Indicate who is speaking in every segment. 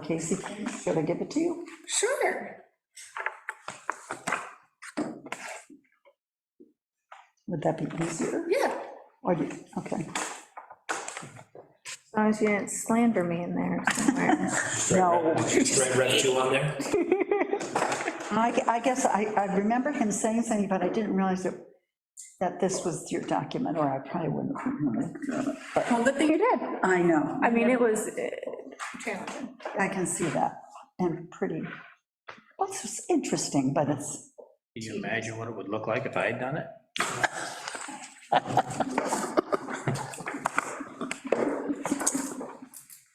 Speaker 1: Casey, should I give it to you?
Speaker 2: Sure.
Speaker 1: Would that be easier?
Speaker 2: Yeah.
Speaker 1: Or do you, okay.
Speaker 2: As long as you didn't slander me in there somewhere.
Speaker 1: No,
Speaker 3: Red, red two on there?
Speaker 1: I, I guess I, I remember him saying something, but I didn't realize that, that this was your document, or I probably wouldn't. have known it. But
Speaker 2: Well, good thing you did.
Speaker 1: I know,
Speaker 2: I mean, it was uh, challenging.
Speaker 1: I can see that, and pretty, well, it's just interesting, but it's,
Speaker 4: Can you imagine what it would look like if I had done it?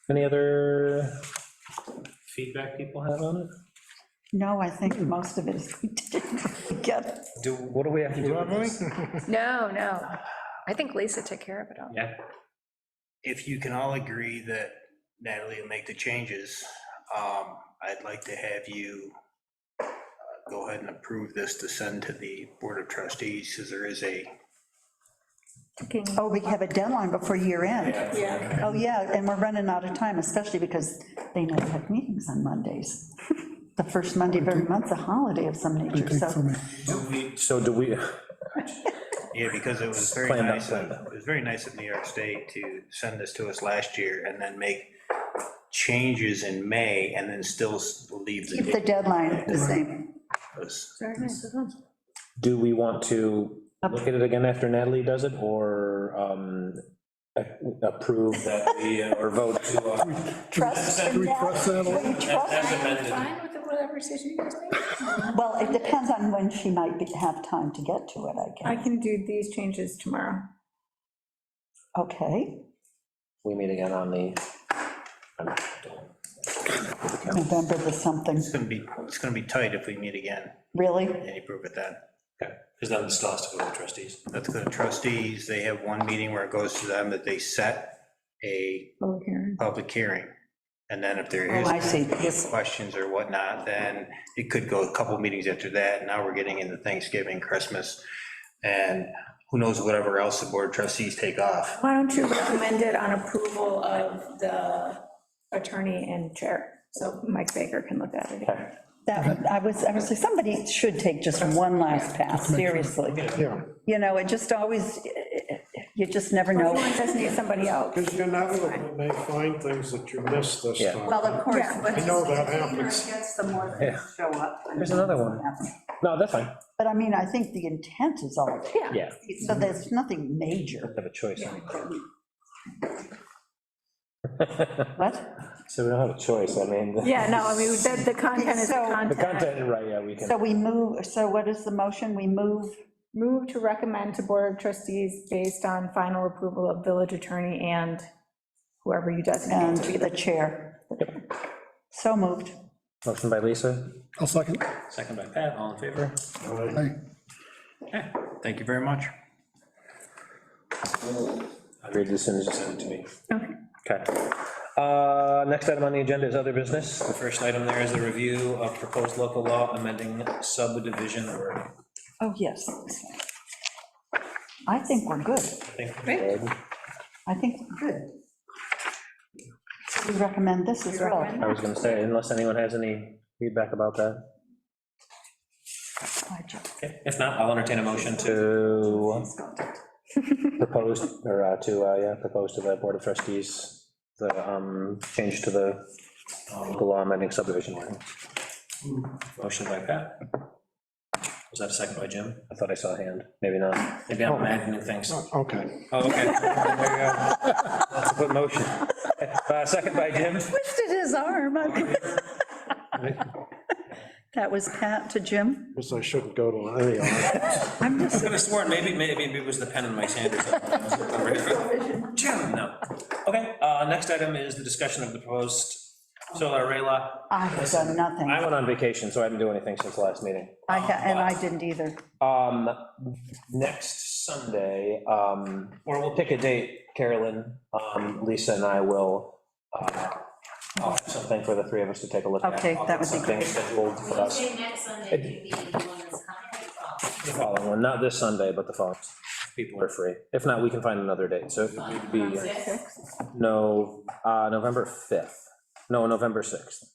Speaker 3: Any other feedback people have on it?
Speaker 1: no, I think most of it is, we didn't really get it.
Speaker 3: Do, what do we have to do? with this?
Speaker 2: No, no. I think Lisa took care of it all.
Speaker 3: Yeah,
Speaker 5: if you can all agree that Natalie will make the changes, um, I'd like to have you uh, go ahead and approve this to send to the Board of Trustees, because there is a,
Speaker 2: Taking-
Speaker 1: Oh, we have a deadline before year end.
Speaker 2: Yeah.
Speaker 1: Oh, yeah, and we're running out of time, especially because they never have meetings on Mondays. The first Monday of every month's a holiday of some nature, so.
Speaker 3: so do we,
Speaker 5: yeah, because it was very
Speaker 3: Planned out,
Speaker 5: nice, of-
Speaker 3: planned out.
Speaker 5: it was very nice of New York State to send this to us last year and then make changes in May and then still s- leave the
Speaker 1: Keep the
Speaker 5: date.
Speaker 1: deadline the same.
Speaker 5: as-
Speaker 3: do we want to look at it again after Natalie does it, or um, a- approve that we, uh, or vote to? uh,
Speaker 1: Trust in
Speaker 6: Request
Speaker 1: that.
Speaker 6: that
Speaker 1: Will you trust?
Speaker 2: Fine with whatever decision you guys make.
Speaker 1: Well, it depends on when she might be- have time to get to it, I
Speaker 2: I
Speaker 1: guess.
Speaker 2: can do these changes tomorrow.
Speaker 1: Okay,
Speaker 3: We meet again on the.
Speaker 1: November the something,
Speaker 5: It's gonna be, it's gonna be tight if we meet again
Speaker 1: really?
Speaker 5: and you prove it then.
Speaker 3: Because then it still has to go to trustees.
Speaker 5: That's the trustees, they have one meeting where it goes to them that they set a
Speaker 2: Public hearing.
Speaker 5: public hearing. And then if there
Speaker 1: Oh, I
Speaker 5: is
Speaker 1: see, yes,
Speaker 5: questions or whatnot, then it could go a couple meetings after that. Now we're getting into Thanksgiving, Christmas, and who knows whatever else the board of trustees take off.
Speaker 2: Why don't you recommend it on approval of the attorney and chair? So Mike Baker can look at it.
Speaker 1: that, I was, I was like, somebody should take just one last pass, seriously.
Speaker 6: Yeah,
Speaker 1: You know, it just always, you just never know.
Speaker 2: Everyone does need somebody else.
Speaker 6: because you're not, looking, they find things that you missed this
Speaker 3: Yeah.
Speaker 6: time.
Speaker 1: Well, of course,
Speaker 2: Yeah.
Speaker 1: but.
Speaker 6: I know that happens.
Speaker 1: Gets the more
Speaker 3: Yeah.
Speaker 1: things show up.
Speaker 3: There's another one. No, that's fine.
Speaker 1: But I mean, I think the intent is all,
Speaker 3: Yeah,
Speaker 1: so there's nothing major.
Speaker 3: have a choice.
Speaker 1: What?
Speaker 3: So we don't have a choice, I mean. the-
Speaker 2: Yeah, no, I mean, the, the content is the
Speaker 1: So- The
Speaker 3: The
Speaker 2: content.
Speaker 3: content, right, yeah, we can.
Speaker 1: So we move, so what is the motion? We move,
Speaker 2: Move to recommend to Board of Trustees based on final approval of village attorney and whoever you
Speaker 1: and
Speaker 2: designate to be
Speaker 1: the
Speaker 2: the.
Speaker 1: chair. So moved.
Speaker 3: Motion by Lisa,
Speaker 6: I'll second.
Speaker 3: second by Pat, all in favor?
Speaker 5: Thank you very much.
Speaker 3: I read this and just send it to me.
Speaker 2: Okay.
Speaker 3: Okay. Uh, Next item on the agenda is other business. The first item there is a review of proposed local law amending subdivision or.
Speaker 1: Oh, yes. I think we're good. I think we're good. We recommend this as well.
Speaker 3: I was gonna say, unless anyone has any feedback about that. If not, I'll entertain a motion to propose, or uh, to, uh, yeah, propose to the Board of Trustees, the um, change to the local law amending subdivision ordinance. Motion by Pat. Was that a second by Jim? I thought I saw a hand, maybe not. Maybe I'm imagining things. Oh,
Speaker 6: Okay.
Speaker 3: okay. There you go. That's a good motion. Uh, Second by Jim.
Speaker 1: Twisted his arm. That was Pat to Jim.
Speaker 6: Guess I shouldn't go to any of them.
Speaker 1: I'm just,
Speaker 3: I could have sworn, maybe, maybe it was the pen in my hand or something. Jim, no. Okay, uh, next item is the discussion of the proposed solar array law.
Speaker 1: I have done nothing.
Speaker 3: I went on vacation, so I didn't do anything since last meeting.
Speaker 1: I, ha- and I didn't either.
Speaker 3: Um, next Sunday, um, or we'll pick a date, Carolyn, um, Lisa and I will, uh, I'll have something for the three of us to take a look at.
Speaker 1: Okay,
Speaker 3: I'll
Speaker 1: that would
Speaker 3: get
Speaker 1: be
Speaker 3: something
Speaker 1: great.
Speaker 3: scheduled for us.
Speaker 7: Tuesday next Sunday, you'd be the one that's coming,
Speaker 3: The following one, not this Sunday, but the following. People are free. If not, we can find another date, so it would be.
Speaker 7: Yes.
Speaker 3: No, uh, November 5th, No, November 6th.